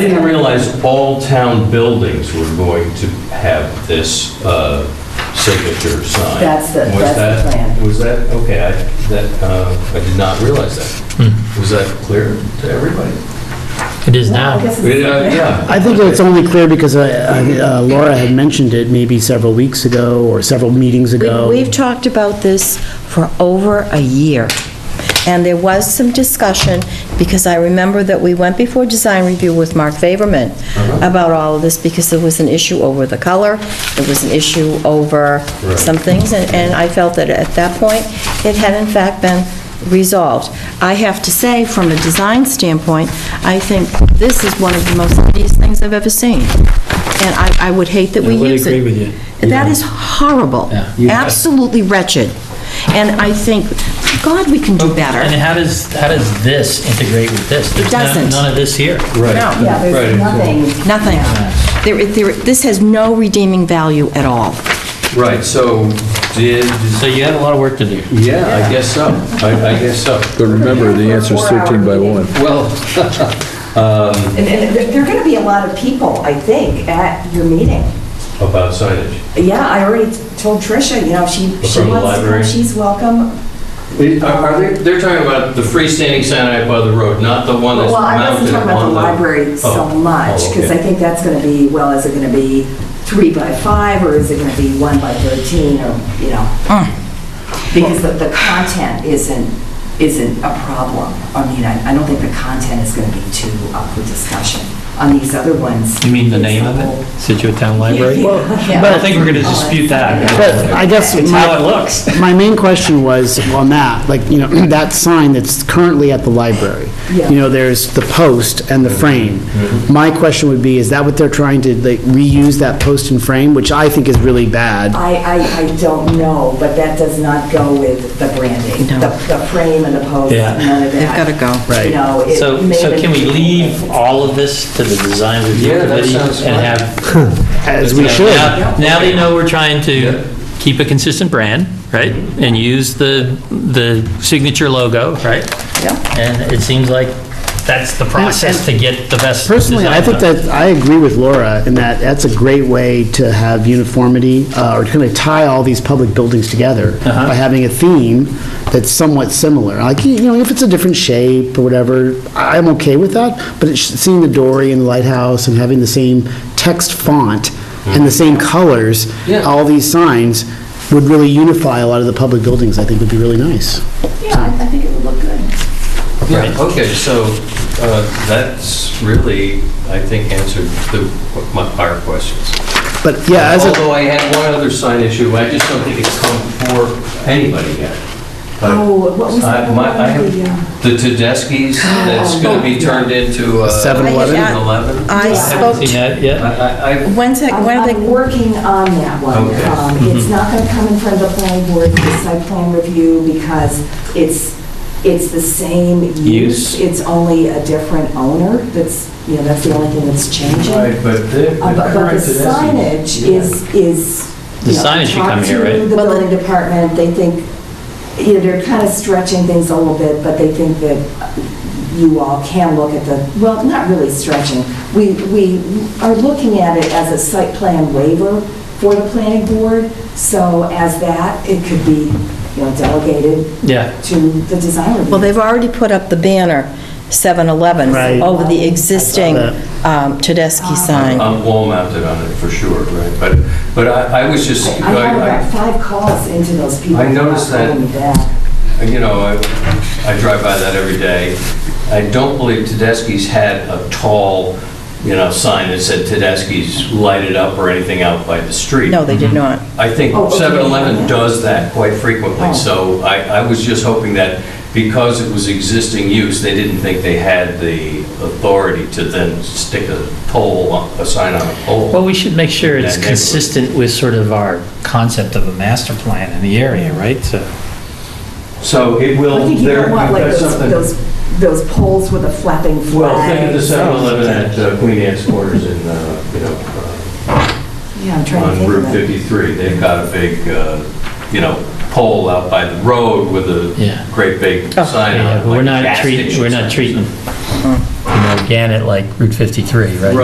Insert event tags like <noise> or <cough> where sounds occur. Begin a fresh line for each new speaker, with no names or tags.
as all town buildings were going to have this uh, signature sign.
That's the-
Was
that's the
that-
plan.
Was that, okay, I, that, uh, I did not realize that.
Hmm.
Was that clear to everybody?
It is
Well, I
now.
guess it's-
Yeah, Yeah.
I think it's only clear because I- I- uh, Laura had mentioned it maybe several weeks ago or several meetings
We-
ago.
We've talked about this for over a year, and there was some discussion, because I remember that we went before design review with Mark Faberman
Uh-huh.
about all of this, because there was an issue over the color, there was an issue over
Right.
some things, and and I felt that at that point, it had in fact been resolved. I have to say, from a design standpoint, I think this is one of the most hideous things I've ever seen, and I I would hate that we
I would
use it.
agree with you.
That is horrible. Absolutely wretched. And I think, God, we can do
And
better.
how does, how does this integrate with this? There's none-
doesn't.
None of this here.
Right.
No.
Yeah,
Right.
there's nothing.
Nothing. There, there, this has no redeeming value at all.
Right, so did,
So you have a lot of work to do.
yeah, I guess so. I I guess so.
But remember, the answer's 13 by 1.
Well,
And, and there there are gonna be a lot of people, I think, at your meeting.
about signage.
Yeah, I already told Tricia, you know, if she, she
From the
wants to come,
library?
she's welcome.
Are are they, they're talking about the freestanding sign out by the road, not the one that's
Well, I
mounted on
wasn't
the...
talking about the library so
Oh,
much,
oh,
because I
okay.
think that's gonna be, well, is it gonna be three by five, or is it gonna be one by thirteen, or, you know? Because the, the content isn't, isn't a problem. I mean, I, I don't think the content is gonna be too up for discussion on these other ones.
You mean the name of it? Situate Town Library?
Yeah.
I don't think we're going to dispute that.
But I guess
It's how it
my,
looks.
my main question was on that, like, you know, <clears throat> that sign that's currently at the library.
Yeah.
You know, there's the post and the frame.
Mm-hmm.
My question would be, is that what they're trying to, like, reuse that post and frame, which I think is really bad?
I, I, I don't know, but that does not go with the branding.
No.
The, the frame and the pose,
Yeah.
none of that.
They've gotta go.
Right.
You know, it
So,
may
so
have
can we
been-
leave all of this to the design review
Yeah, that
committee?
sounds
and
fine.
have-
As we should.
Now now they know we're trying
Yeah.
to keep a consistent brand, right? And use the, the signature logo, right?
Yeah.
And it seems like that's the process to get the best
Personally, I
design
think
done.
that, I agree with Laura in that that's a great way to have uniformity, uh, or to kind of tie all these public buildings together by having a theme that's somewhat similar. Like, you know, if it's a different shape or whatever, I- I'm okay with that, but it's seeing the Dory and the lighthouse and having the same text font and the same colors,
Yeah.
all these signs would really unify a lot of the public buildings, I think would be really nice.
Yeah, I I think it would look good.
Yeah, okay, so uh, that's really, I think, answered the- my- our questions.
But yeah, as a.
Although I had one other sign issue, I just don't think it's come for anybody yet. But
Oh, what was
I-
that?
my- I have- The Tedeschi's, that's going to be turned into uh, a...
7-Eleven?
I- I-
7-Eleven?
I
Haven't
spoke,
seen that yet.
I, I,
when's that,
I'm
when are
I'm
they, Mm-hmm.
working on that one.
Okay.
Um, It's not going to come in front of the planning board for site plan review because it's, it's the same
Use.
use. It's only a different owner that's, you know, that's the only thing that's changing.
right, but the the
Uh, But but
current
the
Tedeschi's...
signage is, is.
The
you know,
signage should
talk
come here,
to
right?
The
Well, the-
building department, they think, you know, they're kind of stretching things a little bit, but they think that you all can look at the, well, not really stretching. We, we are looking at it as a site plan waiver for the planning board, so as that, it could be, you know, delegated
Yeah.
to the design review.
well, they've already put up the banner, 7-Eleven,
Right.
over the existing
that.
um, Tedeschi sign.
I'm wall mounted on it for sure, right? But, but I, I was just,
I had about
I,
five calls into those people.
I noticed
about
that.
calling me back.
I- you know, I, I drive by that every day. I don't believe Tedeschi's had a tall, you know, sign that said Tedeschi's lighted up or anything out by the street.
No, they did not.
I think
Oh, okay.
7-Eleven does that quite frequently,
Oh.
so I, I was just hoping that because it was existing use, they didn't think they had the authority to then stick a pole, on- a sign on a pole.
Well, we should make sure
That
it's
neighborhood.
consistent with sort of our concept of a master plan in the area, right? So
So it
I
will,
think you
there,
don't want like
that's
those,
something.
those, those poles with a flapping flag.
Well, think of the 7-Eleven at uh, Queen Anne's Quarters in, uh, you know,
Yeah, I'm
uh,
trying to
on
think
Route
of it.
53. They've got a big, uh, you know, pole out by the road with
Yeah.
a great big
Oh.
sign on
yeah,
it.
but we're
like gas
not treating,
station
we're
sign or
not treating, you
something.
know, Gannett like Route 53, right?